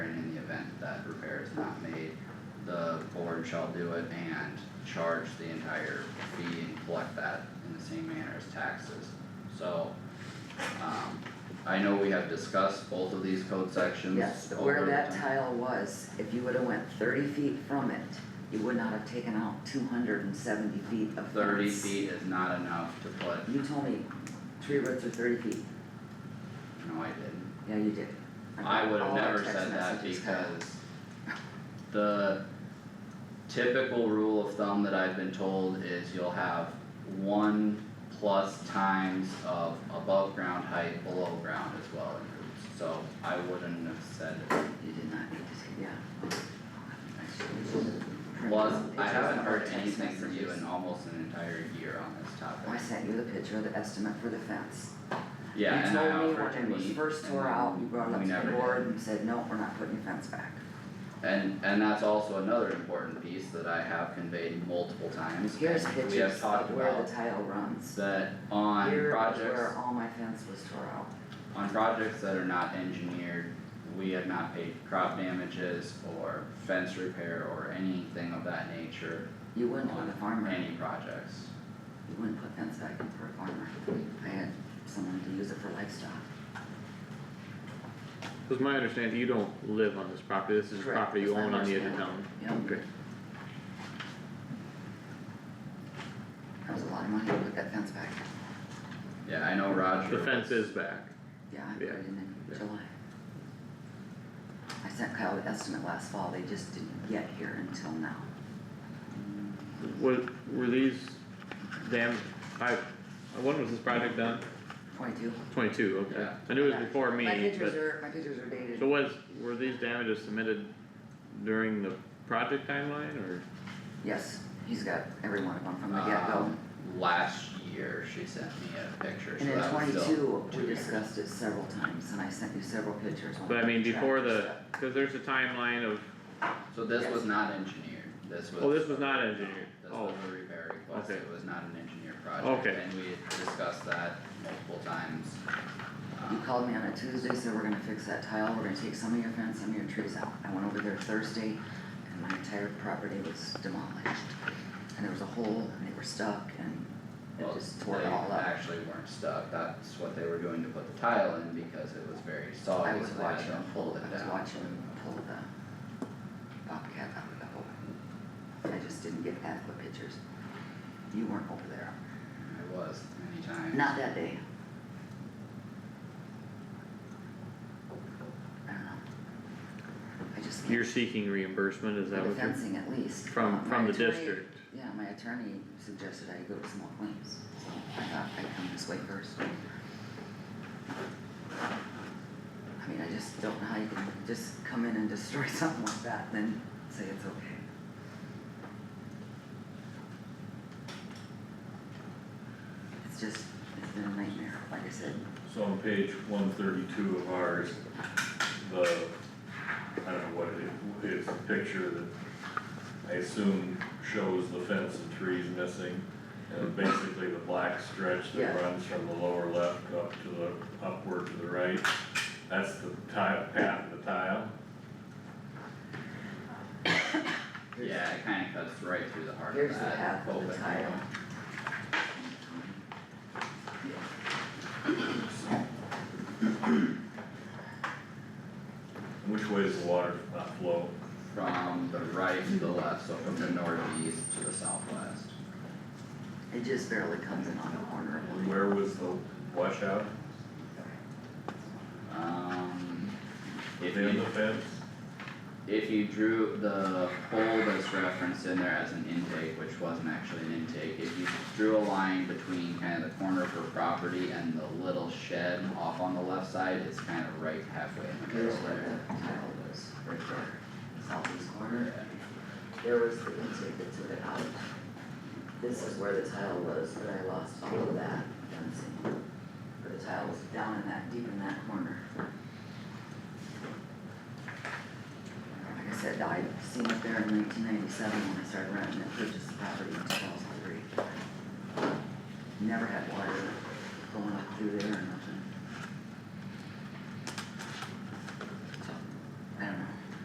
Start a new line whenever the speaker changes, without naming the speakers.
is not made, the board shall do it and charge the entire fee and collect that in the same manner as taxes. So, um, I know we have discussed both of these code sections
Yes, but
over
where
the
that
time.
tile was, if you would've went thirty feet from it, you would not have taken out two hundred and seventy feet of fence.
Thirty feet is not enough to put,
You told me tree roots are thirty feet,
no, I didn't.
yeah, you did.
I
got
would have
all our
never
text
said that
messages cut out.
because the typical rule of thumb that I've been told is you'll have one plus times of above ground height, below ground as well in roots. So I wouldn't have said it.
You did not need to, say- yeah.
Plus, I
Pictures
haven't
of our
heard
text
anything from you
messages.
in almost an entire year on this
I
topic.
sent you the picture of the estimate for the fence.
Yeah, and I offered
You told me
to
when it was
meet,
first
and
tore out, you
then
brought it up
we
to
never
the
did.
board and said, no, we're not putting your fence back.
And and that's also another important piece that I have conveyed multiple times.
Here's
and We have
pictures
talked
of where
about
the tile runs.
that on projects.
Here is where all my fence was tore out.
on projects that are not engineered, we have not paid crop damages or fence repair or anything of that nature
You wouldn't put
on
a farmer,
any projects.
you wouldn't put fence back in for a farmer. I had someone to use it for livestock.
Cause my understanding, you don't live on this property, this is
Correct,
property you
that's
own
my
on the edge of town.
understanding. Yep.
Okay.
That was a lot of money to put that fence back.
Yeah, I know Roger.
The fence is back,
Yeah, I put
Yeah,
it in
yeah.
in July. I sent Kyle the estimate last fall, they just didn't get here until now.
were, were these dam, I, when was this project done?
Twenty-two.
Twenty-two, okay,
Yeah.
I knew it
Yeah.
was before
My
me,
pictures
but,
are, my pictures are dated.
so was, were these damages submitted during the project timeline, or?
Yes, he's got every one of them from the
Um,
get-go.
Last year, she sent me a picture, so
And in
that was still
twenty-two,
two
we
years.
discussed it several times, and I sent you several pictures. when
But I mean,
we tracked
before
this
the,
stuff.
cause there's a timeline of,
So this
Yes.
was not engineered, this was.
oh, this was not engineered,
This
oh,
was a repair request,
Okay.
it was not an engineered project,
Okay.
and we had discussed that multiple times.
You
Um,
called me on a Tuesday, said we're gonna fix that tile, we're gonna take some of your fence, some of your trees out. I went over there Thursday and my entire property was demolished. And there was a hole and they were stuck and it
Um, Well,
just tore it all
They
up.
actually weren't stuck, that's what they were doing to put the tile in because it was very
I
soggy,
was
so they had
watching
to
them
fold
pull, I
it
was
down.
watching them pull the bobcat out of the hole. I just didn't get adequate pictures. You weren't over there,
It was many times.
not that day. I don't know. I just can't.
you're seeking reimbursement, is that
For the
what you're?
fencing at least.
From,
Uh,
from
my
the
attorney-
district,
Yeah, my attorney suggested I go to small claims, so I thought I'd come this way first. I mean, I just don't know how you can just come in and destroy something like that and then say it's okay. It's just, it's been a nightmare, like I said,
So on page one thirty-two of ours, the, I don't know what it, it's a picture that I assume shows the fence and trees missing. And basically the black stretch
Yeah.
that runs from the lower left up to the, upward to the right, that's the tile, path of the tile.
Yeah, it kinda cuts right through the heart
here's
of
the path
that
of the
open
tile.
hole.
Which way does the water not flow?
From the right to the left, so from the northeast to the southwest.
It just barely comes in on the corner of the.
Where was the washout?
Um, if
Within
you,
the fence?
if you drew the hole that's referenced in there as an intake, which wasn't actually an intake, if you drew a line between kind of the corner of her property and the little shed off on the left side, it's kind of right halfway in the
Here's
middle
where
there.
the tile was, right there, southeast corner.
Yeah.
There was the intake that took it out. This is where the tile was, but I lost all of that fencing. But the tile was down in that, deep in that corner. Like I said, I seen it there in nineteen ninety-seven when I started renting and purchased the property in two thousand three. Never had water going up through there and